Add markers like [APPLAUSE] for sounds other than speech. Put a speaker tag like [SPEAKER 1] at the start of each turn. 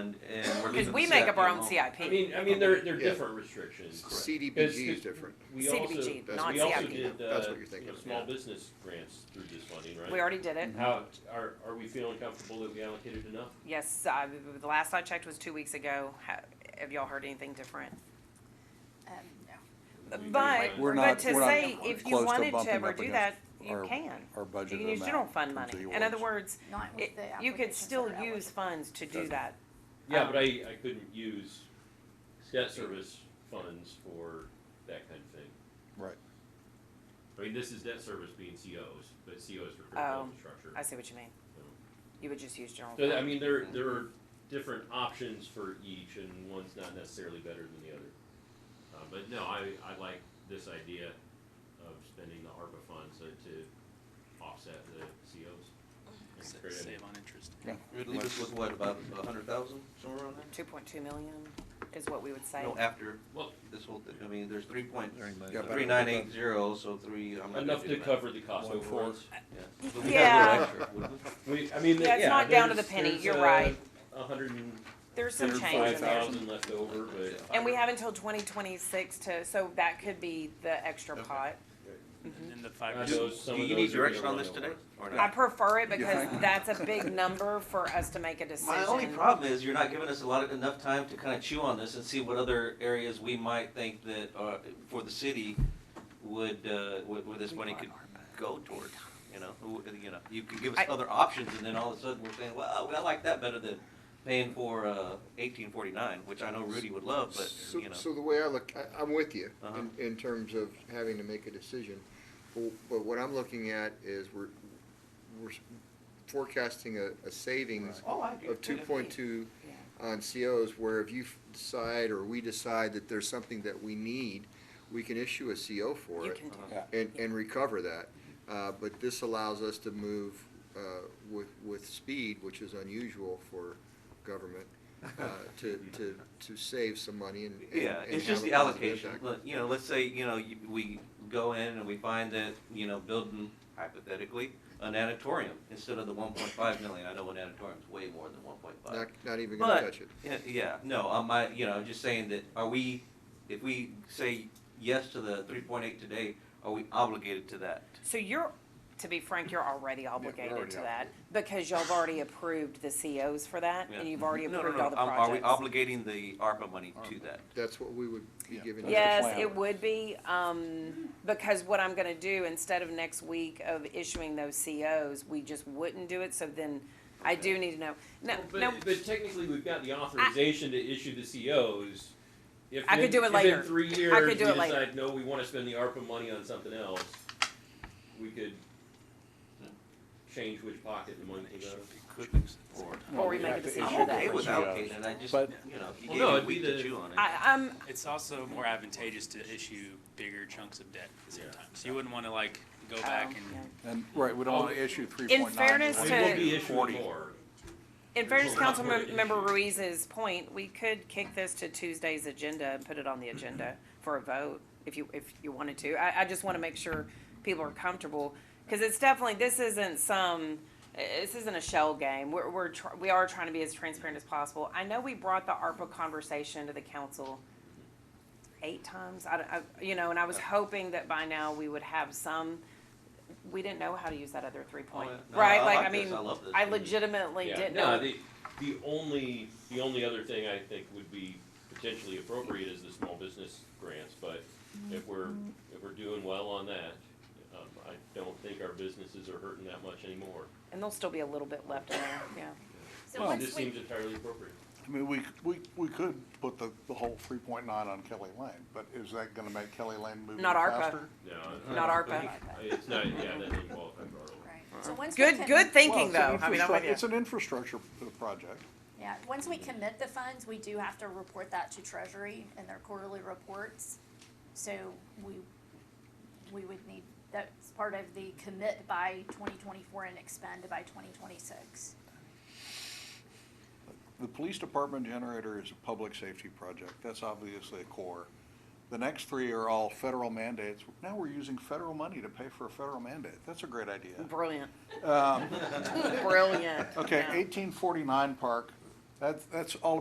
[SPEAKER 1] and, and we're
[SPEAKER 2] Because
[SPEAKER 1] leaving
[SPEAKER 2] we
[SPEAKER 1] the
[SPEAKER 2] make up our
[SPEAKER 1] CIP
[SPEAKER 2] own
[SPEAKER 1] alone.
[SPEAKER 2] CIP.
[SPEAKER 3] I mean, I mean, they're, they're
[SPEAKER 4] Yeah.
[SPEAKER 3] different restrictions.
[SPEAKER 1] Correct.
[SPEAKER 4] CDBG is different.
[SPEAKER 3] We also,
[SPEAKER 2] CDBG,
[SPEAKER 4] not
[SPEAKER 3] we also
[SPEAKER 4] CIP.
[SPEAKER 3] did, uh,
[SPEAKER 4] That's what you're
[SPEAKER 3] you know,
[SPEAKER 4] thinking of,
[SPEAKER 3] small
[SPEAKER 4] yeah.
[SPEAKER 3] business grants through this funding, right?
[SPEAKER 2] We already did it.
[SPEAKER 3] How, are, are we feeling comfortable that we allocated enough?
[SPEAKER 2] Yes, uh, the last I checked was two weeks ago. Ha- Have y'all heard anything different?
[SPEAKER 5] Um, no.
[SPEAKER 2] Uh, But,
[SPEAKER 6] We're
[SPEAKER 2] but
[SPEAKER 6] not-
[SPEAKER 2] to
[SPEAKER 6] we're not
[SPEAKER 2] say, if you
[SPEAKER 6] close to
[SPEAKER 2] wanted to
[SPEAKER 6] bumping
[SPEAKER 2] ever
[SPEAKER 6] up
[SPEAKER 2] do that,
[SPEAKER 6] against
[SPEAKER 2] you
[SPEAKER 6] our-
[SPEAKER 2] can.
[SPEAKER 6] our
[SPEAKER 2] You
[SPEAKER 6] budget
[SPEAKER 2] can use general
[SPEAKER 6] amount
[SPEAKER 2] fund
[SPEAKER 6] compared to
[SPEAKER 2] money.
[SPEAKER 6] the
[SPEAKER 2] In other
[SPEAKER 6] awards.
[SPEAKER 2] words,
[SPEAKER 5] Not with
[SPEAKER 2] it-
[SPEAKER 5] the
[SPEAKER 2] you could
[SPEAKER 5] applications that
[SPEAKER 2] still
[SPEAKER 5] are eligible.
[SPEAKER 2] use funds to do
[SPEAKER 6] Doesn't-
[SPEAKER 2] that.
[SPEAKER 3] Yeah,
[SPEAKER 2] Um,
[SPEAKER 3] but I, I couldn't use debt service funds for that kind of thing.
[SPEAKER 6] Right.
[SPEAKER 3] I mean, this is debt service being COs, but COs for
[SPEAKER 2] Oh,
[SPEAKER 3] critical infrastructure.
[SPEAKER 2] I see what you mean. You would just use general.
[SPEAKER 3] So, I
[SPEAKER 2] fund.
[SPEAKER 3] mean, there, there are different options for each and one's not necessarily better than the other. Uh, but no, I, I like this idea of spending the ARPA funds uh, to offset the COs. and create a-
[SPEAKER 7] Save on interest.
[SPEAKER 1] We'd leave us with what, about a hundred thousand, somewhere around there?
[SPEAKER 2] Two point two million is what we would say.
[SPEAKER 1] No, after
[SPEAKER 3] Well,
[SPEAKER 1] this whole, thing. I mean, there's three point,
[SPEAKER 6] Yeah, but-
[SPEAKER 1] three nine eight zero, so three, I'm not. gonna
[SPEAKER 3] enough
[SPEAKER 1] do
[SPEAKER 3] to
[SPEAKER 1] the math.
[SPEAKER 3] cover the cost
[SPEAKER 6] One fourth.
[SPEAKER 3] overruns.
[SPEAKER 1] Yeah. But we got a little
[SPEAKER 2] Yeah.
[SPEAKER 1] extra, wouldn't we?
[SPEAKER 3] We, I mean,
[SPEAKER 2] Yeah, it's
[SPEAKER 3] yeah,
[SPEAKER 2] not down to the
[SPEAKER 3] there's-
[SPEAKER 2] penny,
[SPEAKER 3] there's,
[SPEAKER 2] you're
[SPEAKER 3] uh,
[SPEAKER 2] right.
[SPEAKER 3] A hundred and
[SPEAKER 2] There's some change
[SPEAKER 3] thirty-five
[SPEAKER 2] in there.
[SPEAKER 3] thousand left over, but.
[SPEAKER 2] And we have until twenty twenty-six to, so that could be the extra
[SPEAKER 1] Okay.
[SPEAKER 2] pot.
[SPEAKER 7] And then the five
[SPEAKER 3] I
[SPEAKER 7] percent.
[SPEAKER 3] know some
[SPEAKER 1] Do
[SPEAKER 3] of
[SPEAKER 1] you need
[SPEAKER 3] those are gonna
[SPEAKER 1] direction on
[SPEAKER 3] run
[SPEAKER 1] this
[SPEAKER 3] over.
[SPEAKER 1] today? Or
[SPEAKER 2] I
[SPEAKER 1] not?
[SPEAKER 2] prefer it
[SPEAKER 6] You
[SPEAKER 2] because
[SPEAKER 6] think?
[SPEAKER 2] that's a big number for us
[SPEAKER 6] [LAUGHS]
[SPEAKER 2] to make a decision.
[SPEAKER 1] My only problem is you're not giving us a lot of, enough time to kind of chew on this and see what other areas we might think that, uh, for the city would, uh, where, where this money could go towards, you know? Who- You know, you could give us
[SPEAKER 2] I-
[SPEAKER 1] other options and then all of a sudden we're saying, well, I like that better than paying for, uh, eighteen forty-nine, which I know Rudy would love, but,
[SPEAKER 4] So,
[SPEAKER 1] you know.
[SPEAKER 4] so the way I look, I, I'm with you
[SPEAKER 1] Uh-huh.
[SPEAKER 4] in, in terms of having to make a decision. But- But what I'm looking at is we're, we're forecasting a, a savings
[SPEAKER 1] Oh, I
[SPEAKER 4] of two point two on COs, where if you f- decide, or we decide that there's something that we need, we can issue a CO for
[SPEAKER 2] You
[SPEAKER 4] it
[SPEAKER 2] can do
[SPEAKER 6] Yeah.
[SPEAKER 4] and, and recover that. Uh, but this allows us to move, uh, with, with speed, which is unusual for government,
[SPEAKER 1] [LAUGHS]
[SPEAKER 4] uh, to, to, to save some money and. and-
[SPEAKER 1] Yeah,
[SPEAKER 4] and
[SPEAKER 1] it's just
[SPEAKER 4] have a
[SPEAKER 1] the
[SPEAKER 4] positive
[SPEAKER 1] allocation.
[SPEAKER 4] impact.
[SPEAKER 1] Let- You know, let's say, you know, you- we go in and we find that, you know, building hypothetically, an auditorium instead of the one point five million. I know an auditorium's way more than one point
[SPEAKER 4] Not,
[SPEAKER 1] five.
[SPEAKER 4] not even gonna
[SPEAKER 1] But-
[SPEAKER 4] touch it.
[SPEAKER 1] Yeah, yeah, no, I'm, I, you know, I'm just saying that, are we, if we say yes to the three point eight today, are we obligated to that?
[SPEAKER 2] So you're, to be frank, you're already obligated
[SPEAKER 4] already
[SPEAKER 2] to that because y'all have already approved the COs for that and
[SPEAKER 1] Yeah.
[SPEAKER 2] you've already
[SPEAKER 1] No, no,
[SPEAKER 2] approved
[SPEAKER 1] no,
[SPEAKER 2] all the
[SPEAKER 1] um, Are we
[SPEAKER 2] projects.
[SPEAKER 1] obligating the ARPA money to that?
[SPEAKER 4] That's what we would be
[SPEAKER 6] Yeah.
[SPEAKER 4] giving.
[SPEAKER 6] That's the
[SPEAKER 2] Yes,
[SPEAKER 6] plan.
[SPEAKER 2] it would be, um, because what I'm gonna do, instead of next week of issuing those COs, we just wouldn't do it, so then I do need to know. No,
[SPEAKER 3] Well,
[SPEAKER 2] no,
[SPEAKER 3] But, but technically, we've got the authorization to issue the COs. If
[SPEAKER 2] I could
[SPEAKER 3] in-
[SPEAKER 2] do it
[SPEAKER 3] if
[SPEAKER 2] later.
[SPEAKER 3] in three years,
[SPEAKER 2] could
[SPEAKER 3] we
[SPEAKER 2] do it later.
[SPEAKER 3] decide, no, we wanna spend the ARPA money on something else, we could change which pocket the money goes.
[SPEAKER 1] Or-
[SPEAKER 2] Or we
[SPEAKER 6] You
[SPEAKER 2] make
[SPEAKER 6] have
[SPEAKER 2] a
[SPEAKER 6] to
[SPEAKER 2] decision
[SPEAKER 6] issue
[SPEAKER 1] I'm okay
[SPEAKER 6] the
[SPEAKER 1] with
[SPEAKER 6] COs.
[SPEAKER 1] allocating it, I just,
[SPEAKER 6] But-
[SPEAKER 1] you know, if you gave
[SPEAKER 3] Well, no,
[SPEAKER 1] me a
[SPEAKER 3] it'd be
[SPEAKER 1] week to
[SPEAKER 3] the-
[SPEAKER 1] chew on it.
[SPEAKER 2] I, I'm,
[SPEAKER 7] It's also more advantageous to issue bigger chunks of debt at the same
[SPEAKER 3] Yeah.
[SPEAKER 7] time. So you wouldn't wanna like go back
[SPEAKER 2] yeah.
[SPEAKER 7] and
[SPEAKER 6] And, right, we don't want to issue three point nine.
[SPEAKER 2] fairness
[SPEAKER 3] We
[SPEAKER 2] to-
[SPEAKER 3] will be issuing
[SPEAKER 6] 40.
[SPEAKER 3] more.
[SPEAKER 2] In fairness,
[SPEAKER 3] There's a lot more to
[SPEAKER 2] Councilmember
[SPEAKER 3] issue.
[SPEAKER 2] Ruiz's point, we could kick this to Tuesday's agenda and put it on the
[SPEAKER 1] Mm-hmm.
[SPEAKER 2] agenda for a vote if you, if you wanted to. I, I just want to make sure people are comfortable, because it's definitely, this isn't some, eh, this isn't a shell game. We're, we're, tr- we are trying to be as transparent as possible. I know we brought the ARPA conversation to the council eight times, I, don't- I, you know, and I was hoping that by now we would have some, we didn't know how to use that other three point,
[SPEAKER 1] Oh, yeah. No,
[SPEAKER 2] right?
[SPEAKER 1] I
[SPEAKER 2] Like,
[SPEAKER 1] like
[SPEAKER 2] I
[SPEAKER 1] this.
[SPEAKER 2] mean,
[SPEAKER 1] I love this.
[SPEAKER 2] I legitimately
[SPEAKER 3] Yeah.
[SPEAKER 2] didn't
[SPEAKER 3] No,
[SPEAKER 2] know.
[SPEAKER 3] the, the only, the only other thing I think would be potentially appropriate is the small business grants, but if we're, if we're doing well on that, um, I don't think our businesses are hurting that much anymore.
[SPEAKER 2] And there'll still be a little bit left in there, yeah.
[SPEAKER 5] So
[SPEAKER 3] This-
[SPEAKER 5] once
[SPEAKER 3] This
[SPEAKER 5] we,
[SPEAKER 3] seems entirely appropriate.
[SPEAKER 8] I mean, we, we, we could put the, the whole three point nine on Kelly Lane, but is that gonna make Kelly Lane move any
[SPEAKER 2] Not ARPA.
[SPEAKER 8] faster?
[SPEAKER 3] No. I-
[SPEAKER 2] Not
[SPEAKER 3] I
[SPEAKER 2] ARPA.
[SPEAKER 3] think- It's not, yeah, that didn't qualify for ARPA.
[SPEAKER 5] right, so once we.
[SPEAKER 2] Good,
[SPEAKER 5] commit-
[SPEAKER 2] good
[SPEAKER 8] Well,
[SPEAKER 2] thinking
[SPEAKER 8] it's an
[SPEAKER 2] though. I mean, I'm
[SPEAKER 8] infrastru-
[SPEAKER 2] with you.
[SPEAKER 8] It's an infrastructure p- project.
[SPEAKER 5] Yeah, once we commit the funds, we do have to report that to Treasury in their quarterly reports. So we, we would need, that's part of the commit by twenty twenty-four and expend by twenty twenty-six.
[SPEAKER 8] The police department generator is a public safety project. That's obviously a core. The next three are all federal mandates. Now we're using federal money to pay for a federal mandate. That's a great idea. [LAUGHS]
[SPEAKER 2] Brilliant,
[SPEAKER 8] Um,
[SPEAKER 2] brilliant.
[SPEAKER 8] Okay,
[SPEAKER 2] [LAUGHS] Yeah.
[SPEAKER 8] eighteen forty-nine Park, That's, that's all